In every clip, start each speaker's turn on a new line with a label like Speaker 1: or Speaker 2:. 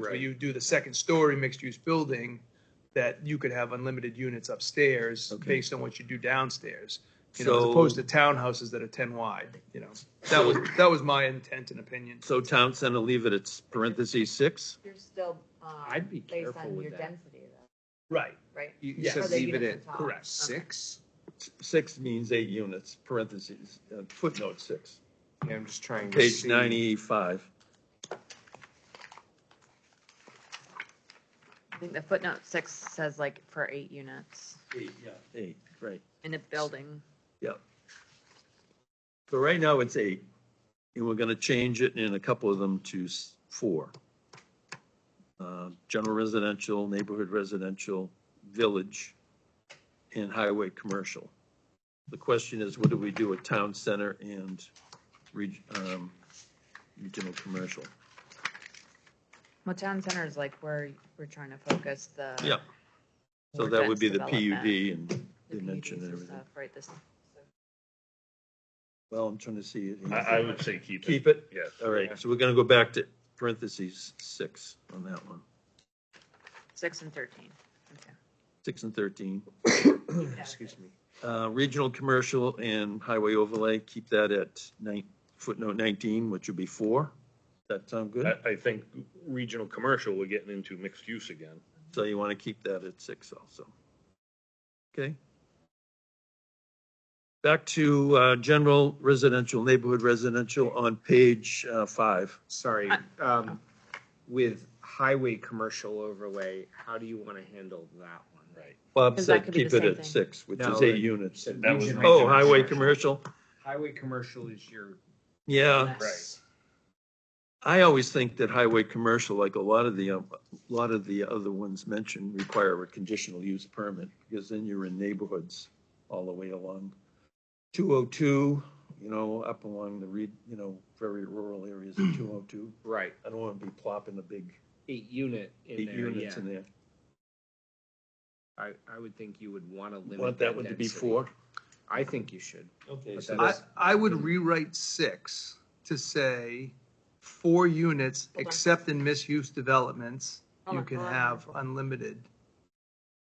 Speaker 1: So
Speaker 2: Right.
Speaker 1: you do the second story mixed use building, that you could have unlimited units upstairs
Speaker 3: Okay.
Speaker 1: based on what you do downstairs. You know, as
Speaker 3: So-
Speaker 1: opposed to townhouses that are ten wide, you know. That was, that was my intent and opinion.
Speaker 3: So town center, leave it at parentheses six?
Speaker 4: You're still,
Speaker 5: uh,
Speaker 4: um.
Speaker 2: I'd be
Speaker 4: Based
Speaker 2: careful
Speaker 4: on
Speaker 2: with
Speaker 4: your
Speaker 2: that.
Speaker 4: density though,
Speaker 1: Right.
Speaker 4: right?
Speaker 2: You you
Speaker 1: Yes.
Speaker 2: said
Speaker 1: Are
Speaker 4: they
Speaker 2: leave it
Speaker 4: units
Speaker 2: at
Speaker 4: on top?
Speaker 1: correct.
Speaker 2: six?
Speaker 3: Six means eight units, parentheses, uh, footnote six,
Speaker 2: Yeah, I'm just trying to
Speaker 3: page
Speaker 2: see.
Speaker 3: ninety-five.
Speaker 5: I think the footnote six says like for eight units
Speaker 3: Eight, yeah. Eight, right.
Speaker 5: in a building.
Speaker 3: So right now it's eight, and we're gonna change it in a couple of them to s- four. Uh, General residential, neighborhood residential, village, and highway commercial. The question is, what do we do with town center and reg, um, regional commercial?
Speaker 5: Well, town center is like where we're trying to focus the.
Speaker 3: Yeah, So
Speaker 5: more
Speaker 3: that would
Speaker 5: dense
Speaker 3: be the
Speaker 5: development,
Speaker 3: PUD and
Speaker 5: the
Speaker 3: dimension
Speaker 5: PUDs
Speaker 3: and
Speaker 5: and
Speaker 3: everything.
Speaker 5: stuff, Right, this,
Speaker 3: Well, I'm trying to see it.
Speaker 6: I, I would say keep it.
Speaker 3: Keep it?
Speaker 6: Yes.
Speaker 3: All right, so we're gonna go back to parentheses six on that one,
Speaker 5: six and thirteen. Okay.
Speaker 3: six and thirteen.
Speaker 2: Excuse me.
Speaker 3: Uh, Regional commercial and highway overlay, keep that at nine, footnote nineteen, which would be four. That sound good?
Speaker 6: I, I think regional commercial, we're getting into mixed use again.
Speaker 3: So you want to keep that at six also. Okay. Back to uh, general residential, neighborhood residential on page uh, five.
Speaker 2: Sorry, um, with highway commercial overlay, how do you want to handle that one? Right.
Speaker 3: Bob
Speaker 5: Because
Speaker 3: said
Speaker 5: that could be
Speaker 3: keep
Speaker 5: the
Speaker 3: it
Speaker 5: same
Speaker 3: at
Speaker 5: thing.
Speaker 3: six, which
Speaker 2: No,
Speaker 3: is eight
Speaker 2: it-
Speaker 3: units.
Speaker 6: That was
Speaker 3: Oh, highway commercial?
Speaker 2: Highway commercial is your. Uh,
Speaker 3: Yeah.
Speaker 6: Right.
Speaker 3: I always think that highway commercial, like a lot of the, um, a lot of the other ones mentioned, require a conditional use permit, because then you're in neighborhoods all the way along. Two oh two, you know, up along the reed, you know, very rural areas of two oh two.
Speaker 2: Right,
Speaker 3: I don't want to be plopping the big
Speaker 2: eight unit in
Speaker 3: eight
Speaker 2: there, yeah.
Speaker 3: units in there.
Speaker 2: I, I would think you would want to limit.
Speaker 3: Want that one to be
Speaker 2: density.
Speaker 3: four?
Speaker 2: I think you should.
Speaker 3: Okay,
Speaker 2: But
Speaker 3: so
Speaker 1: I,
Speaker 3: that's,
Speaker 1: I would rewrite six to say, four units,
Speaker 4: on.
Speaker 1: except in misuse developments,
Speaker 4: Hold
Speaker 1: you
Speaker 4: on,
Speaker 1: can
Speaker 4: hold on.
Speaker 1: have unlimited,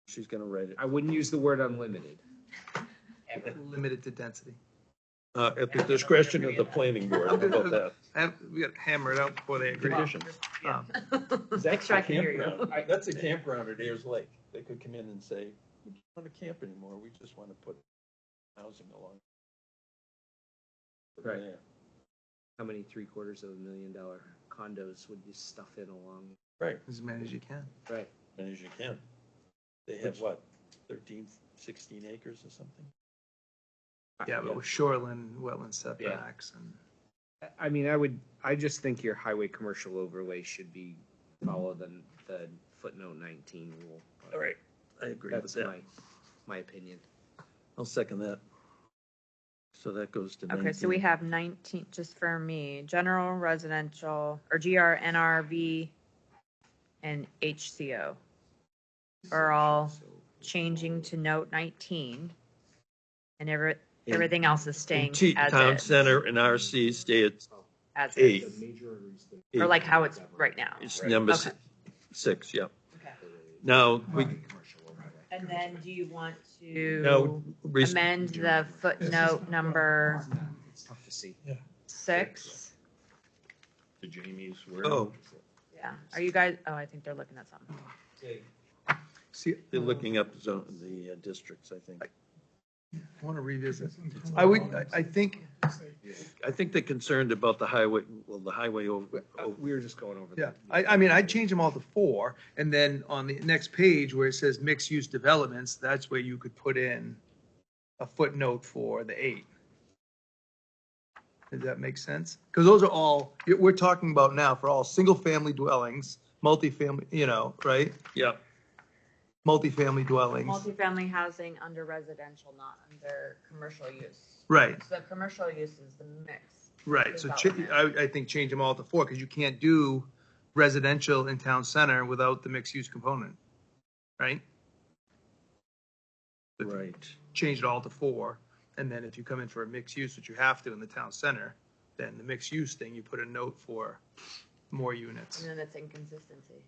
Speaker 3: she's gonna write it.
Speaker 2: I wouldn't use the word unlimited.
Speaker 1: limited to density.
Speaker 3: Uh, at the discretion of the planning board, how about that?
Speaker 1: I have, we got to hammer it out before they agree.
Speaker 3: Condition.
Speaker 1: Um,
Speaker 5: Make sure I can hear you.
Speaker 3: Campground. That's a campground at Ayers Lake. They could come in and say, we don't want to camp anymore. We just want to put housing along.
Speaker 2: Right.
Speaker 3: there."
Speaker 2: How many three quarters of a million dollar condos would you stuff in along?
Speaker 3: Right,
Speaker 1: As many as you can.
Speaker 2: Right.
Speaker 3: and as you can. They have what, 13, 16 acres or something?
Speaker 1: Yeah, but with shoreline, wetland setbacks and.
Speaker 2: I mean, I would, I just think your highway commercial overlay should be follow the, the footnote nineteen rule.
Speaker 3: All right, I agree with
Speaker 2: That's
Speaker 3: that.
Speaker 2: my, my opinion.
Speaker 3: I'll second that. So that goes to
Speaker 5: Okay, so we
Speaker 3: 19.
Speaker 5: have nineteen, just for me, general residential or GRNRV and HCO are all changing to note nineteen. And every,
Speaker 3: And-
Speaker 5: everything else is
Speaker 3: And
Speaker 5: staying
Speaker 3: T- Town
Speaker 5: as is,
Speaker 3: Center and RC stay at
Speaker 5: as
Speaker 3: eight.
Speaker 5: is,
Speaker 3: eight.
Speaker 5: or like how it's right now.
Speaker 3: It's number
Speaker 5: Okay.
Speaker 3: si- six, yeah.
Speaker 5: Okay.
Speaker 3: Now, we,
Speaker 5: And then do you want to
Speaker 3: now, res-
Speaker 5: amend the footnote number
Speaker 2: It's tough to see.
Speaker 5: six?
Speaker 6: To Jamie's word.
Speaker 3: oh,
Speaker 5: Yeah, are you guys, oh, I think they're looking at something.
Speaker 1: See,
Speaker 3: They're looking up zone, the uh, districts, I think.
Speaker 1: I want to revisit. I would, I- I think,
Speaker 3: I think they're concerned about the highway, well, the highway over,
Speaker 2: Oh,
Speaker 3: over-
Speaker 2: We were just going over.
Speaker 1: yeah,
Speaker 2: that.
Speaker 1: I, I mean, I'd change them all to four. And then on the next page where it says mixed-use developments, that's where you could put in a footnote for the eight. Does that make sense? Because those are all, we're talking about now for all single-family dwellings, multifamily, you know, right?
Speaker 3: yeah,
Speaker 1: Multifamily dwellings,
Speaker 5: Multifamily housing under residential, not under commercial use.
Speaker 1: right.
Speaker 5: So commercial use is the mix.
Speaker 1: Right, so cha- I, I think change them all to four, because you can't do residential in town center without the mixed-use component, right?
Speaker 3: right.
Speaker 1: Change it all to four, and then if you come in for a mixed use, which you have to in the town center, then the mixed-use thing, you put a note for more units.
Speaker 5: and then it's inconsistency.